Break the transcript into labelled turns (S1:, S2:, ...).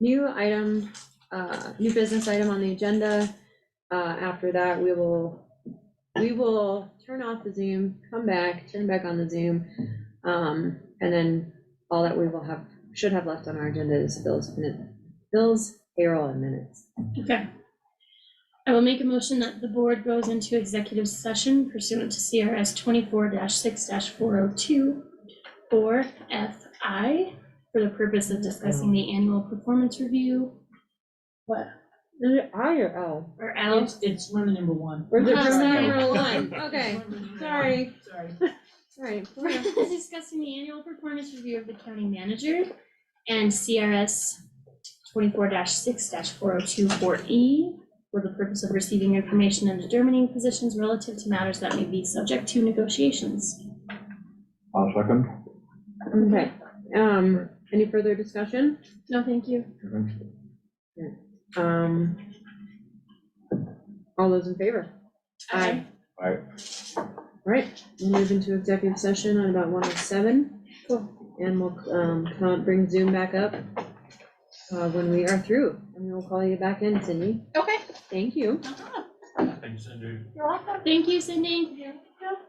S1: new item, uh, new business item on the agenda. Uh, after that, we will, we will turn off the Zoom, come back, turn back on the Zoom. Um, and then all that we will have, should have left on our agenda is bills, min- bills, payroll and minutes.
S2: Okay. I will make a motion that the board goes into executive session pursuant to CRS twenty-four six four oh two or FI for the purpose of discussing the annual performance review
S1: What? Is it I or L?
S2: or L.
S3: It's, it's lemon number one.
S1: Or the
S2: Oh,
S1: percent
S2: sorry.
S1: number one, Uh-huh. okay, sorry,
S3: Sorry.
S1: sorry.
S2: Discussing the annual performance review of the county manager and CRS twenty-four six four oh two four E for the purpose of receiving information and determining positions relative to matters that may be subject to negotiations.
S4: I'll second.
S1: Okay, um, any further discussion?
S2: No, thank you.
S1: Um, all those in favor? Aye.
S4: Aye.
S1: All right, we'll move into executive session on about one oh seven.
S2: Cool.
S1: And we'll, um, come out, bring Zoom back up, uh, when we are through, and we'll call you back in, Cindy.
S5: Okay.
S1: Thank you.
S4: Thanks, Andrew.
S5: You're welcome.
S2: Thank you, Cindy.
S5: You're welcome.